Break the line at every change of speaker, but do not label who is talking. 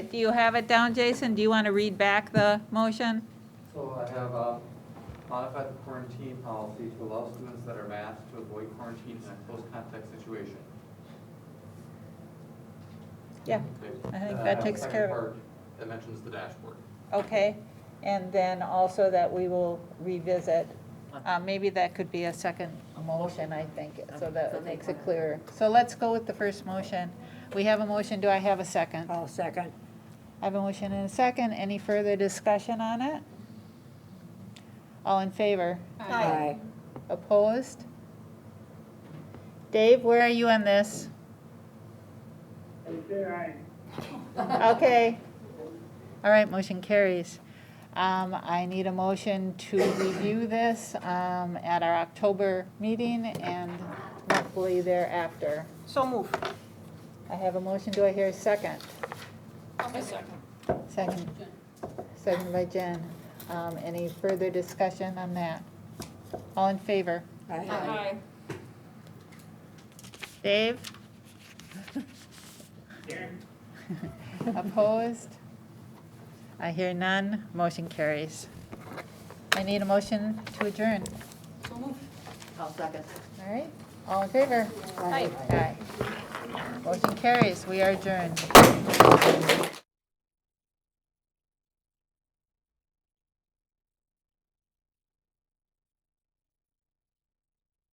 do you have it down, Jason? Do you want to read back the motion?
So I have um, modified the quarantine policy to allow students that are masked to avoid quarantine in a close contact situation.
Yeah.
Okay.
I think
Uh,
that takes
second
care of it.
part That mentions the dashboard.
Okay, and then also that we will revisit, uh, maybe that could be a second motion, I think, so that it makes it clearer. So let's go with the first motion. We have a motion, do I have a second?
I'll second.
I have a motion and a second, any further discussion on it? All in favor?
Aye.
Opposed? Dave, where are you on this? Okay. All right, motion carries. Um, I need a motion to review this, um, at our October meeting and hopefully thereafter.
So move.
I have a motion, do I hear a second? second. Second, second by Jen. Um, any further discussion on that? All in favor?
Aye.
Dave? Opposed? I hear none, motion carries. I need a motion to adjourn.
I'll second.
All right, all in favor?
Aye.
Aye. Motion carries, we are adjourned.